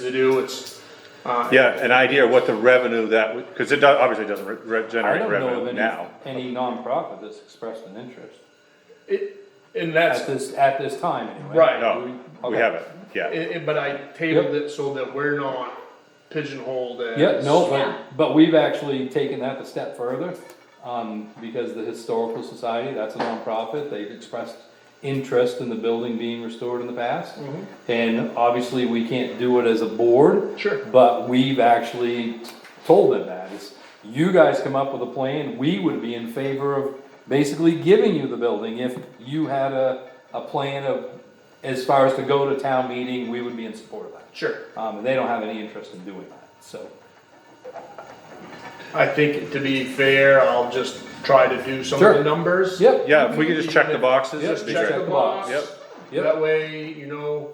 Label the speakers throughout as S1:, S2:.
S1: to do, it's,
S2: Yeah, an idea of what the revenue that, would because it does, obviously doesn't re- re-
S3: I
S2: generate
S3: don't know
S2: revenue
S3: of
S2: now.
S3: any, any nonprofit that's expressed an interest,
S1: it, and
S3: at
S1: that's,
S3: this, at this time anyway.
S1: Right.
S2: No, we
S3: Okay.
S2: haven't, yeah.
S1: it- it- but I tabled it so that we're not pigeonholed as.
S3: Yeah, no,
S4: Yeah.
S3: but, but we've actually taken that a step further, um, because the Historical Society, that's a nonprofit, they've expressed interest in the building being restored in the past. And obviously, we can't do it as a board.
S1: Sure.
S3: But we've actually told them that, it's, you guys come up with a plan, we would be in favor of basically giving you the building if you had a, a plan of, as far as to go to town meeting, we would be in support of that.
S1: Sure,
S3: Um, and they don't have any interest in doing that, so.
S1: I think to be fair, I'll just try to do some of the
S3: Sure.
S1: numbers.
S3: Yep,
S2: Yeah, if we could just check the boxes,
S3: Yeah,
S2: that'd be
S1: Check
S2: great.
S1: the
S3: Check the
S1: box,
S3: box.
S2: Yep.
S3: Yep.
S1: that way, you know.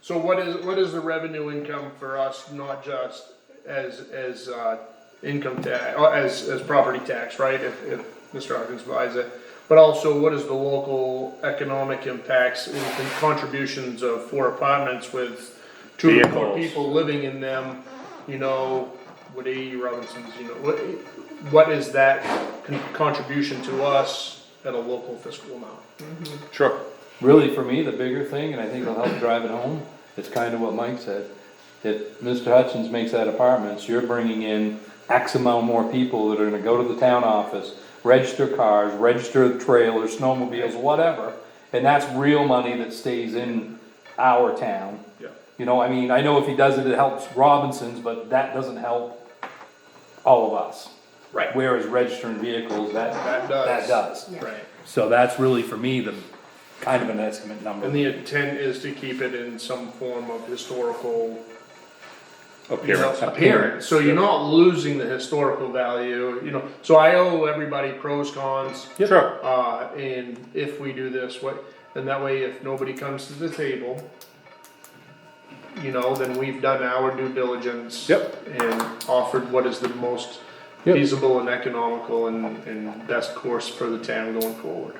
S1: So what is, what is the revenue income for us, not just as, as, uh, income tax, or as, as property tax, right? If, if Mr. Hawkins buys it, but also what is the local economic impacts and contributions of four apartments with two or more
S2: Vehicles.
S1: people living in them, you know, what A.E. Robinson's, you know, what, what is that con- contribution to us at a local fiscal amount?
S2: Sure,
S3: really for me, the bigger thing, and I think it'll help drive it home, it's kind of what Mike said. If Mr. Hutchins makes that apartments, you're bringing in X amount more people that are gonna go to the town office, register cars, register trailers, snowmobiles, whatever. And that's real money that stays in our town.
S1: Yeah.
S3: You know, I mean, I know if he does it, it helps Robinson's, but that doesn't help all of us.
S1: Right.
S3: Whereas registering vehicles, that,
S1: That does.
S3: that does.
S1: Right.
S3: So that's really for me, the kind of an estimate number.
S1: And the intent is to keep it in some form of historical. you know,
S2: appearance.
S1: Appearance, so you're not losing the historical value, you know, so I owe everybody pros, cons.
S2: Sure,
S1: Uh, and if we do this, what, and that way if nobody comes to the table. You know, then we've done our due diligence.
S2: Yep.
S1: And offered what is the most
S3: Yep.
S1: feasible and economical and, and best course for the town going forward.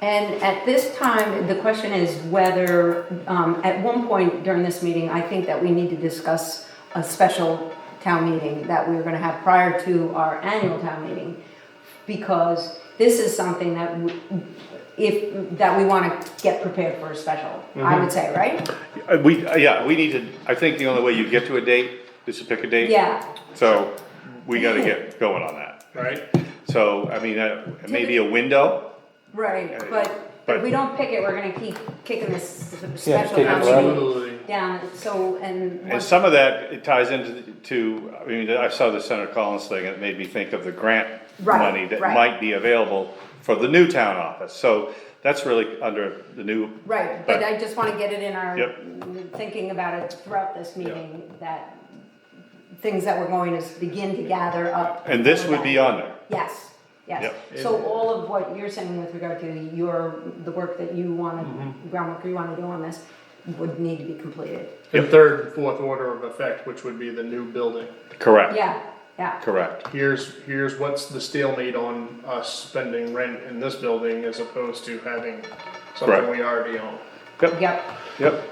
S4: And at this time, the question is whether, um, at one point during this meeting, I think that we need to discuss a special town meeting that we were gonna have prior to our annual town meeting. Because this is something that w- if, that we wanna get prepared for a special, I would say, right?
S3: Mm-hmm.
S2: Uh, we, uh, yeah, we need to, I think the only way you get to a date is to pick a date.
S4: Yeah,
S2: So, we gotta get going on that.
S1: Right.
S2: So, I mean, uh, maybe a window,
S4: right, but
S2: But-
S4: if we don't pick it, we're gonna keep kicking this
S3: Yeah,
S4: special
S3: kick it
S4: town
S3: around.
S4: meeting
S1: Absolutely.
S4: down, so, and.
S2: and some of that, it ties into, the- to, I mean, I saw the Senator Collins thing, and it made me think of the grant
S4: Right,
S2: money that
S4: right.
S2: might be available for the new town office, so that's really under the new
S4: Right,
S2: But-
S4: but I just wanna get it in our,
S2: Yep.
S4: thinking about it throughout this meeting, that things that we're going to begin to gather up.
S2: And this would be on there.
S4: Yes, yes.
S2: Yep.
S4: So all of what you're saying with regard to your, the work that you wanna,
S3: Mm-hmm.
S4: groundwork you wanna do on this, would need to be completed.
S1: And third and fourth order of effect, which would be the new building.
S2: Correct.
S4: Yeah, yeah,
S2: Correct.
S1: Here's, here's what's the stalemate on us spending rent in this building as opposed to having something
S2: Correct.
S1: we already own.
S4: yep,
S2: Yep.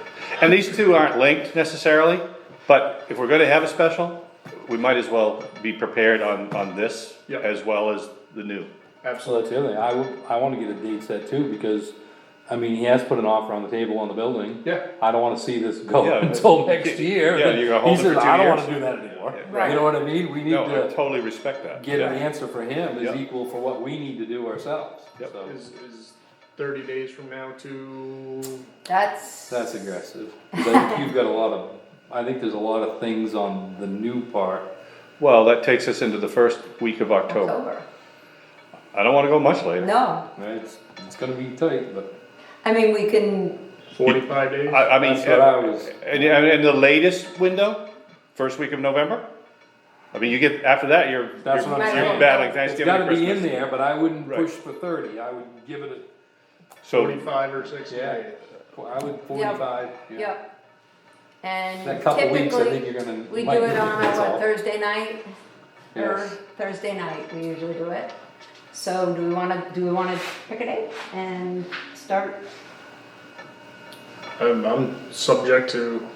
S2: And these two aren't linked necessarily, but if we're gonna have a special, we might as well be prepared on, on this
S1: Yep.
S2: as well as the new.
S3: So
S1: Absolutely.
S3: that's the other thing, I would, I wanna get a date set too, because, I mean, he has put an offer on the table on the building.
S1: Yeah.
S3: I don't wanna see this go
S2: Yeah.
S3: until next year.
S2: Yeah, you're gonna hold it
S3: He
S2: for
S3: says,
S2: two
S3: I don't
S2: years."
S3: wanna do that anymore,
S4: Right.
S3: you know what I mean, we need
S2: No, I
S3: to
S2: totally respect that.
S3: get an
S2: Yeah.
S3: answer for him
S2: Yeah.
S3: is equal for what we need to do ourselves,
S2: Yep.
S3: so.
S1: Is, is thirty days from now to,
S4: that's.
S3: That's aggressive, 'Cause I think you've got a lot of, I think there's a lot of things on the new part.
S2: Well, that takes us into the first week of October.
S4: October.
S2: I don't wanna go much later.
S4: No,
S3: Right, it's, it's gonna be tight, but
S4: I mean, we can,
S1: forty-five days?
S2: I, I mean, uh,
S3: that's what I was,
S2: and, and and the latest window, first week of November? I mean, you get, after that, you're, you're
S3: That's what I'm
S4: saying.
S2: you're battling
S3: it's
S2: Thanksgiving
S3: gotta
S2: and
S3: be in
S2: Christmas.
S3: there, but I wouldn't
S2: Right.
S3: push for thirty, I would give it a
S2: So,
S1: Forty-five or sixty
S3: Yeah,
S1: days.
S3: well, I would forty-five. yeah.
S4: yep. And
S3: That
S4: typically.
S3: couple weeks, I think you're gonna.
S4: We do
S3: might
S4: it
S3: need
S4: on a,
S3: that's
S4: what,
S3: all.
S4: Thursday night? Or
S3: Yes.
S4: Thursday night, we usually do it. So do we wanna, do we wanna pick a date and start?
S1: I'm, I'm subject to